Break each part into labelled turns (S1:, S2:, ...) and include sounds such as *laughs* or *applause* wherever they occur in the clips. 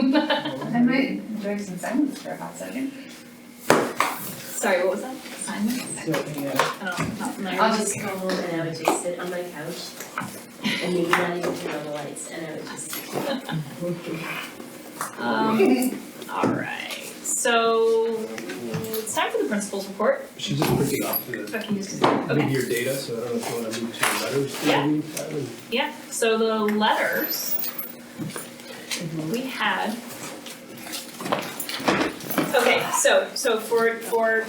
S1: I might enjoy some silence for a hot second.
S2: Sorry, what was that? Silence? I don't, I'm not familiar.
S3: I'll just go home and I would just sit on my couch and maybe not even turn on the lights and I would just.
S2: Um, alright, so it's time for the principal's report.
S4: She's just printing off the
S2: Becky just, okay,
S4: mid-year data, so I don't know if you wanna move to the letters.
S2: Yeah.
S4: maybe, that would-
S2: yeah, so the letters we had. Okay, so, so for, for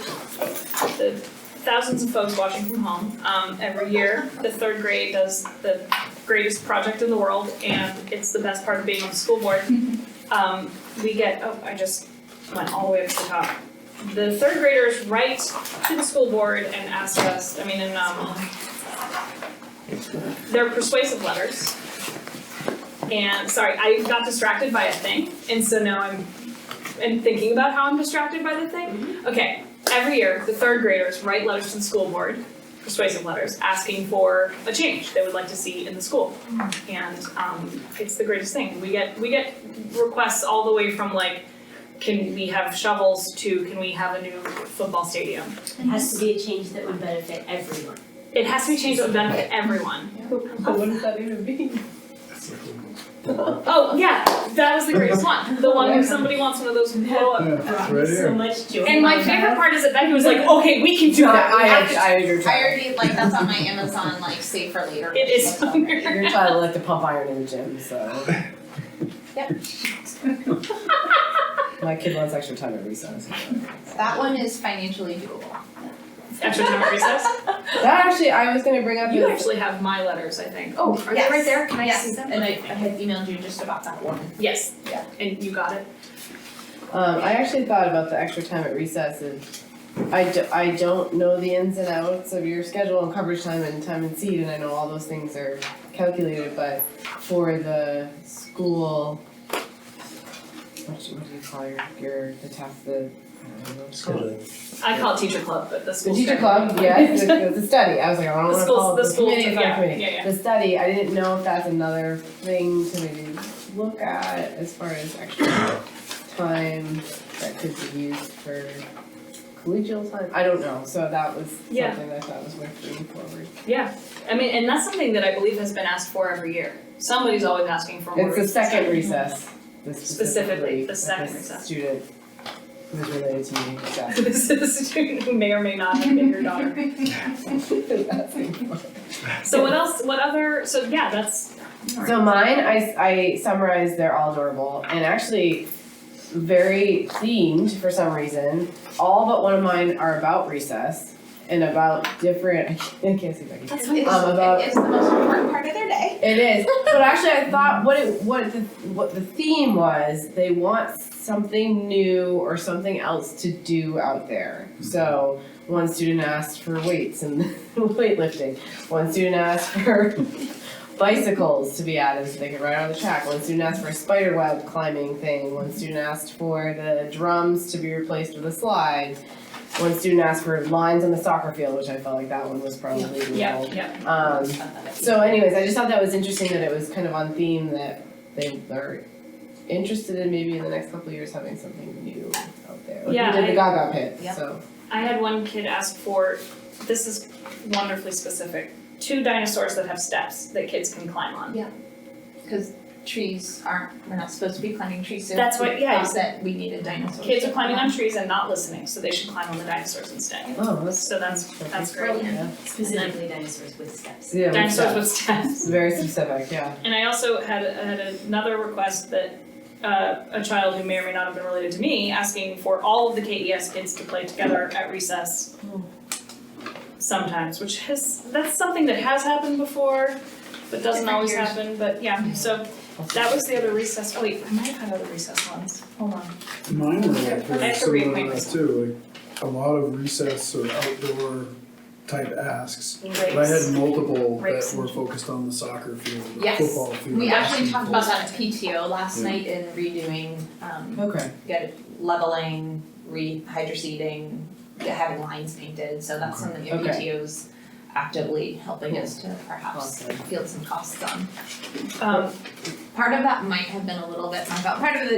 S2: the thousands of folks watching from home, um, every year, the third grade does the greatest project in the world, and it's the best part of being on the school board. Um, we get, oh, I just went all the way up to the top. The third graders write to the school board and ask us, I mean, and, um, they're persuasive letters. And, sorry, I got distracted by a thing, and so now I'm, and thinking about how I'm distracted by the thing. Okay, every year, the third graders write letters to the school board, persuasive letters, asking for a change they would like to see in the school. And um, it's the greatest thing. We get we get requests all the way from like, can we have shovels to can we have a new football stadium?
S3: It has to be a change that would benefit everyone.
S2: It has to be changed that would benefit everyone.
S5: But what does that even mean?
S4: That's the cool
S2: Oh yeah, that was the greatest one. The one where somebody wants one of those blow up.
S4: one. Yeah, right
S3: So
S4: here.
S3: much joy.
S2: And my favorite part is that Becky was like, okay, we can do
S5: No,
S2: that. We have to-
S5: I, I, your
S1: I
S5: child.
S1: already, like, that's on my Amazon, like, save for later.
S2: It is
S1: list
S2: *laughs*
S1: already.
S5: *laughs* Your child liked to pump iron in the gym, so.
S1: Yep.
S5: My kid wants extra time at recess.
S1: That one is financially doable.
S2: Extra time at recess.
S5: That actually, I was gonna bring up
S2: You
S5: is,
S2: actually have my letters, I think.
S1: Oh,
S2: are they right there? Can I
S1: Yes,
S2: see them?
S1: and I, I had emailed you just about that one.
S2: Yes.
S1: Yeah.
S2: And you got it.
S5: um, I actually thought about the extra time at recess and I do, I don't know the ins and outs of your schedule and coverage time and time and seed, and I know all those things are calculated, but for the school, what do what do you call your, your, the task, the, I don't know, what it's called.
S2: I call it teacher club, but the school.
S5: The teacher
S2: schedule.
S5: club,
S2: *laughs*
S5: yes, the, the- the study, I was like, I don't
S2: The
S5: wanna
S2: schools-
S5: call it
S2: the
S5: the
S2: schools,
S5: committee, it's not a
S2: yeah,
S5: committee.
S2: yeah, yeah.
S5: The study, I didn't know if that's another thing to maybe look at as far as extra time that could be used for collegial time, I don't know, so that was something
S2: Yeah.
S5: that I thought was worth bringing forward.
S2: Yeah, I mean, and that's something that I believe has been asked for every year. Somebody's always asking for more.
S5: It's the
S2: *laughs*
S5: second recess, the
S2: Specifically,
S5: specifically,
S2: the
S5: that
S2: second
S5: this
S2: recess.
S5: student who's related to me, exactly.
S2: This is a student who may or may not have been your daughter. *laughs*
S5: *laughs*
S2: So what else, what other, so yeah, that's,
S5: So mine, I, I summarized they're all adorable and actually very themed for some reason. All but one of mine are about recess and about different. *laughs* I can't, I can't see Becky.
S1: That's what it is.
S5: Um, about-
S1: It is the most important part of their day.
S5: It is, but actually, I thought what it what the what the theme was. They want something new or something else to do out there. So one student asked for weights and *laughs* weightlifting. One student asked for *laughs* bicycles to be added so they could ride on the track. One student asked for a spider web climbing thing. One student asked for the drums to be replaced with a slide. One student asked for lines on the soccer field, which I felt like that one was probably the
S2: yeah, yeah.
S5: Um, so anyways, I just thought that was interesting that it was kind of on theme that they are interested in maybe in the next couple of years having something new out there. Like we
S2: Yeah,
S5: did
S2: I-
S5: the Gaga pit,
S1: Yeah.
S5: so.
S2: I had one kid ask for, this is wonderfully specific, two dinosaurs that have steps that kids can climb on.
S1: Because trees aren't, we're not supposed to be climbing trees, so.
S2: That's what-
S1: we
S2: yeah.
S1: thought That we needed dinosaurs.
S2: Kids are
S1: to
S2: climbing
S1: climb
S2: on trees and not listening, so they should climb on the dinosaurs instead.
S5: Oh, that's.
S2: So that's, that's great.
S5: Yeah,
S3: Specifically dinosaurs with steps.
S5: yeah, we
S2: Dinosaurs
S5: said-
S2: with steps.
S5: it's very specific, yeah.
S2: And I also had, had another request that uh, a child who may or may not have been related to me asking for all of the KES kids to play together at recess sometimes, which has that's something that has happened before, but doesn't always happen.
S1: Different
S2: But yeah, so that was the other recess. Oh, wait, I might have had other recess ones. Hold on.
S6: Mine are all
S2: I
S6: very
S2: have to read
S6: similar
S2: my
S6: to that too, like a lot of recess or outdoor type asks. But I
S2: Rakes.
S6: had multiple
S2: Rakes
S6: that were focused on the soccer field, the
S1: Yes.
S6: football field.
S1: We actually talked about
S6: basketball.
S1: that at PTO last night in redoing, um,
S5: Okay.
S1: get leveling, rehydroseeding, having lines painted, so that's something that
S5: Okay.
S1: PTO's actively helping us to perhaps
S5: Awesome.
S1: field some costs on.
S2: Um,
S1: Part of that might have been a little bit my fault, part of it